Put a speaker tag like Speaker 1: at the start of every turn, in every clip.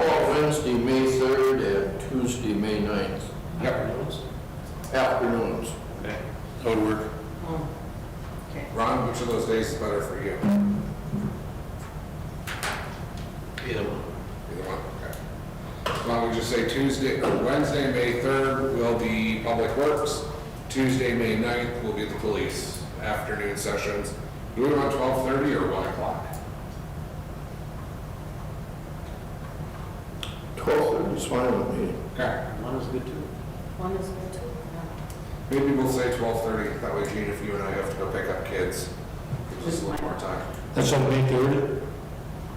Speaker 1: Wednesday, May 3rd, and Tuesday, May 9th,
Speaker 2: Yep.
Speaker 1: afternoons.
Speaker 2: Okay, That would work.
Speaker 3: Okay.
Speaker 2: Ron, which of those days is better for you?
Speaker 1: Either one.
Speaker 2: Either one, okay. Why don't we just say Tuesday, or Wednesday, May 3rd will be Public Works. Tuesday, May 9th will be the police afternoon sessions. Do we want 12:30 or 1 o'clock?
Speaker 1: 12:30 is fine with me.
Speaker 2: Okay,
Speaker 4: One is good too.
Speaker 3: One is good too. yeah.
Speaker 2: maybe we'll say 12:30. That way, Gene, if you and I have to go pick up kids, gives us a little more time.
Speaker 5: That's on May 3rd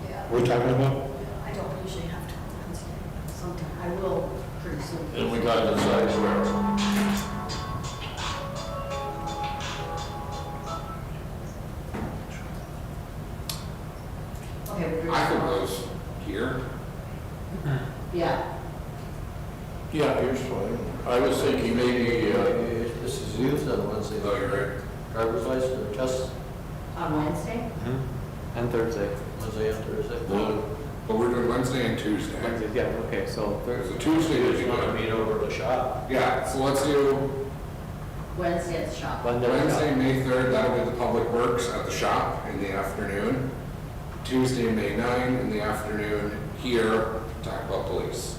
Speaker 3: Yeah,
Speaker 5: we're talking about?
Speaker 3: I don't usually have to on Wednesday, but sometime, I will pretty soon.
Speaker 1: And we gotta decide where.
Speaker 3: Okay, we're
Speaker 2: I think those here,
Speaker 3: Yeah,
Speaker 1: Yeah, here's fine. I was thinking maybe, uh,
Speaker 4: This is used on Wednesday.
Speaker 2: though you're right.
Speaker 4: Driver's license or test
Speaker 3: on Wednesday?
Speaker 6: And Thursday.
Speaker 4: Wednesday and Thursday.
Speaker 1: the-
Speaker 2: But we're doing Wednesday and Tuesday.
Speaker 6: Wednesday, yeah, okay, so
Speaker 2: There's
Speaker 6: Thursday.
Speaker 2: a Tuesday would be good.
Speaker 4: meet over the shop.
Speaker 2: Yeah, so let's do
Speaker 3: Wednesday at the shop.
Speaker 2: Wednesday, May 3rd, that'll be the Public Works at the shop in the afternoon. Tuesday, May 9, in the afternoon, here, talk about police.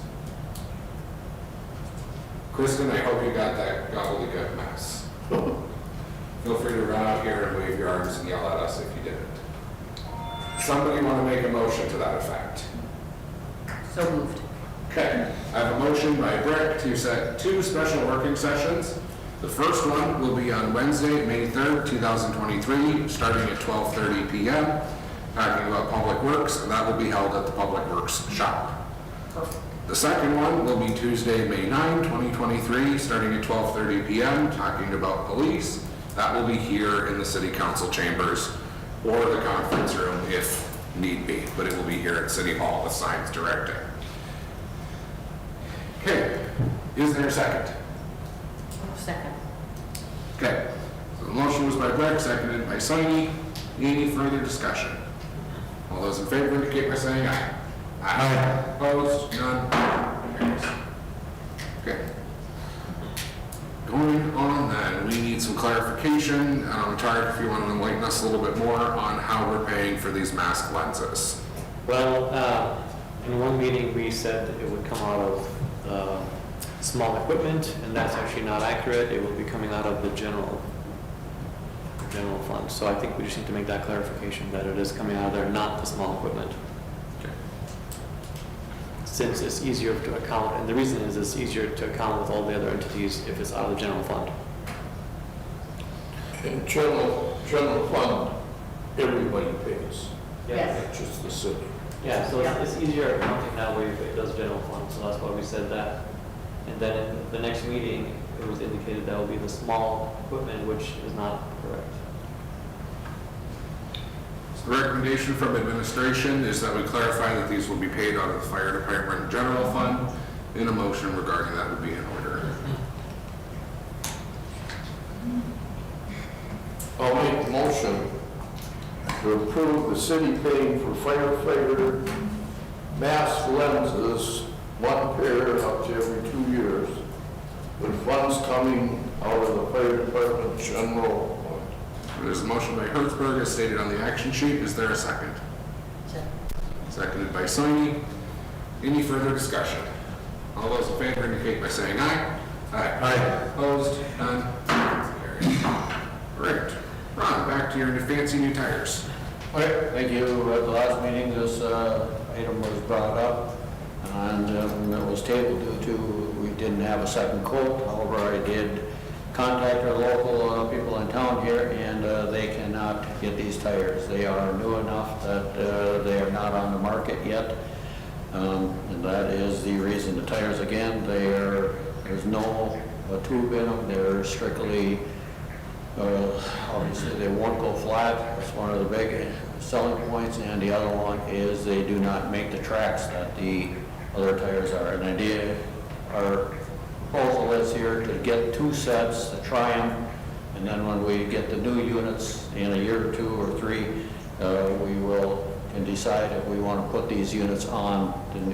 Speaker 2: Kristen, I hope you got that gobbledygook mess. Feel free to run out here and wave your arms and yell at us if you didn't. Somebody want to make a motion to that effect?
Speaker 3: So moved.
Speaker 2: Okay, I have a motion by Brick to set two special working sessions. The first one will be on Wednesday, May 3rd, 2023, starting at 12:30 PM, talking about public works, and that will be held at the Public Works Shop. The second one will be Tuesday, May 9, 2023, starting at 12:30 PM, talking about police. That will be here in the City Council chambers or the conference room if need be, but it will be here at City Hall with signs directing. Okay, is there a second?
Speaker 3: Second.
Speaker 2: Okay, so the motion was by Brick, seconded by Soini. Any further discussion? All those in favor indicate by saying aye. Aye. Opposed, none, carries. Okay. Going on then, we need some clarification, um, Tarek, if you want to enlighten us a little bit more on how we're paying for these mask lenses.
Speaker 6: Well, uh, in one meeting, we said that it would come out of uh, small equipment, and that's actually not accurate. It will be coming out of the general, general fund. So I think we just need to make that clarification, that it is coming out of there, not the small equipment. Since it's easier to account, and the reason is it's easier to account with all the other entities if it's out of the general fund.
Speaker 1: in general, general fund, everybody pays,
Speaker 3: Yes.
Speaker 1: not just the city.
Speaker 6: Yeah, so it's it's easier accounting that way if it does general fund, so that's why we said that. And then in the next meeting, it was indicated that will be the small equipment, which is not correct.
Speaker 2: So The recommendation from administration is that we clarify that these will be paid out of the fire department general fund. In a motion regarding that would be in order.
Speaker 1: I'll make the motion to approve the city paying for firefighter mask lenses, one pair up to every two years, with funds coming out of the fire department general fund.
Speaker 2: There's a motion by Hertzberg as stated on the action sheet. Is there a second?
Speaker 3: Second.
Speaker 2: Seconded by Soini. Any further discussion? All those in favor indicate by saying aye. Aye. Aye. Opposed? None? Carried. Great. Ron, back to your fancy new tires.
Speaker 4: All right, thank you. At the last meeting, this uh, item was brought up, and um, it was tabled due to, we didn't have a second quote. However, I did contact our local uh, people in town here, and uh, they cannot get these tires. They are new enough that uh, they are not on the market yet, Um, and that is the reason. The tires, again, they are, there's no uh, tube in them, they're strictly uh, Obviously, they won't go flat, that's one of the big selling points, and the other one is they do not make the tracks that the other tires are. An idea, our proposal is here to get two sets, to try them, and then when we get the new units in a year or two or three, uh, we will, can decide if we want to put these units on the